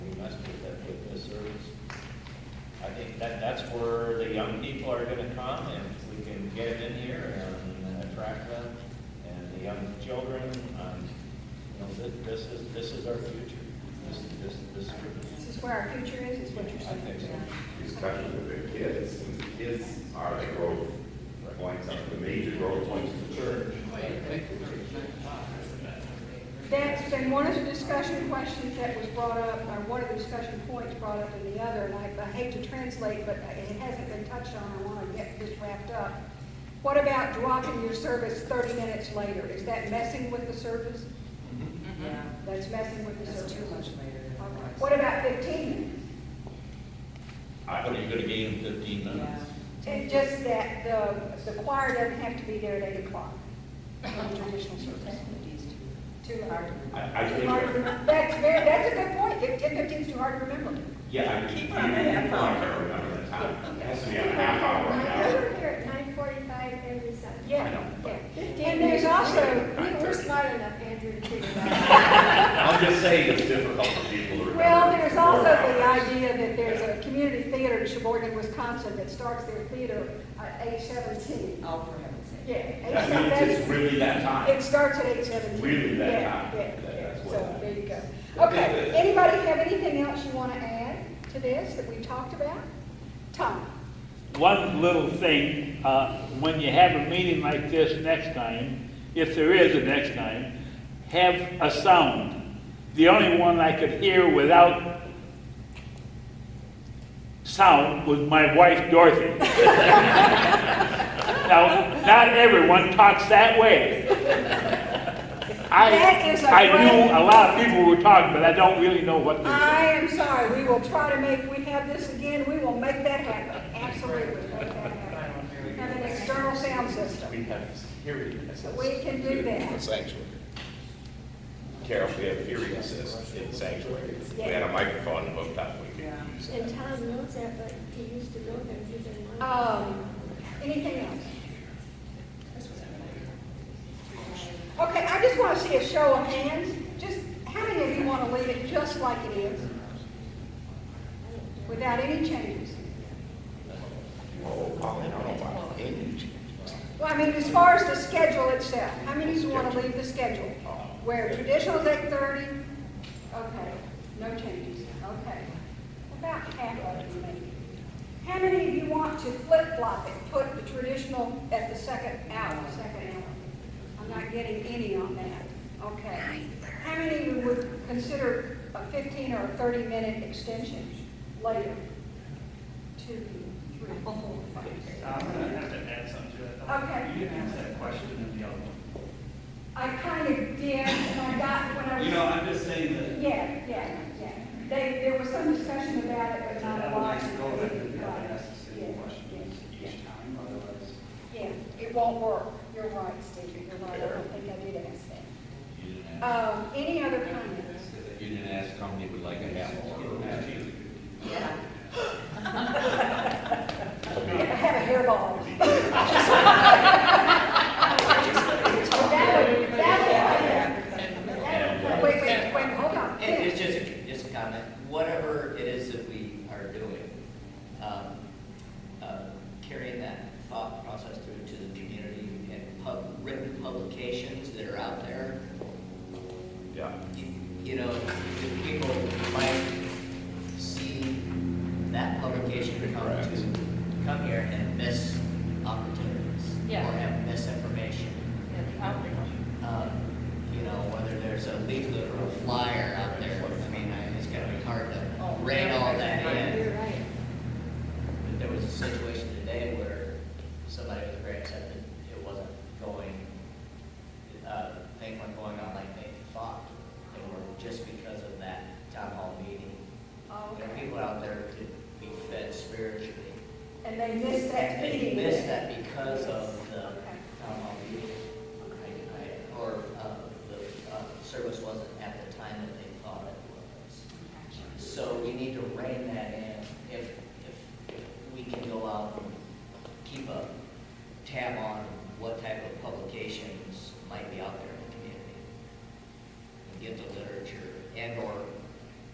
young people are gonna come, and if we can get them in here and attract them, and the young children, um, you know, thi- this is, this is our future. This, this, this is, This is where our future is, is what you're saying. I think so. He's touching with their kids, and the kids are the growth points, are the major growth points of the church. That's been one of the discussion questions that was brought up, or one of the discussion points brought up in the other, and I I hate to translate, but it hasn't been touched on, I want to get this wrapped up. What about dropping your service 30 minutes later? Is that messing with the service? Yeah, That's messing with the that's service. too much All later. right. What about 15 minutes? I think you're gonna gain fifteen minutes. And just that the, the choir doesn't have to be there at 8 o'clock for traditional service. Too hard to I, I Too think, hard to remember. That's very, that's a good point, fifteen, fifteen's too hard to remember. yeah, I keep on half hour. Remember the time, it has to be a half hour, an I hour. work here at nine forty-five every Sunday. Yeah, I know, but- yeah. And there's also, We were smart enough, Andrew, to uh, figure that out. I'm just saying it's difficult for people to remember. well, there's four also the hours. idea that there's a community theater in Sheboygan, Wisconsin that starts their theater at age seventeen. Oh, for heaven's sake. Yeah. That means it's really that It time. starts at eight seventeen. Really that high. Yeah, That- yeah, that's what so I- there you go. Okay, anybody have anything else you want to add to this that we talked about? Tom? One little thing, uh, when you have a meeting like this next time, if there is a next time, have a sound. The only one I could hear without sound was my wife Dorothy. Now, not everyone talks that way. I, That is a I knew great- a lot of people were talking, but I don't really know what they're I am sorry, we will try to make, we have this again, we will make that happen, absolutely, make that happen. Have an external sound system, We have hearing we can do that. Sanctuary. Carol, we have hearing assist in sanctuary. We had a microphone hooked up, we could Yeah. use it. And Tom knows that, but he used to go there, and he didn't want to. Um, anything else? Okay, I just wanna see a show of hands, just, how many of you wanna leave it just like it is? Without any changes? Oh, Colin, I don't know about English. Well, I mean, as far as the schedule itself, how many of you want to leave the schedule? Where traditional is eight thirty? Okay, no changes, okay. About half of you maybe. How many of you want to flip flop it, put the traditional at the second hour, second hour? I'm not getting any on that, okay. How many of you would consider a fifteen or a thirty minute extension later? Two, three, four, five. I'm gonna have to add something to that. Okay. You didn't answer that question in the other one. I kind of did, and I got when I was. You know, I'm just saying that, Yeah, yeah, yeah. They, there was some discussion about it, but not a that lot. would go back to the other ask the Yeah, same questions yeah, each time, otherwise. Yeah, it won't work. You're right, Steve, you're right. I don't think I did ask that. You didn't ask- Um, any other comments? you didn't ask how many would like a half hour. Yeah. I have a hairball. That would, that would. that would- Wait, wait, wait, hold on. It- It's just, a- just a comment, whatever it is that we are doing, um, uh, carrying that thought process through to the community and pub, written publications that are out there, Yeah. you- you know, if people might see that publication come Correct. to, come here and miss opportunities. Yeah. Or have misinformation um, you know, whether there's a leaflet or a flyer out there, I mean, I- it's gonna be hard Oh, to rein all that in. You're right. But there was a situation today where somebody was very upset that it wasn't going, uh, thing wasn't going on like they thought. They were just because of that town hall meeting. There are Oh, Okay. people out there that could be fed spiritually. And they missed that They meeting. missed that because of uh,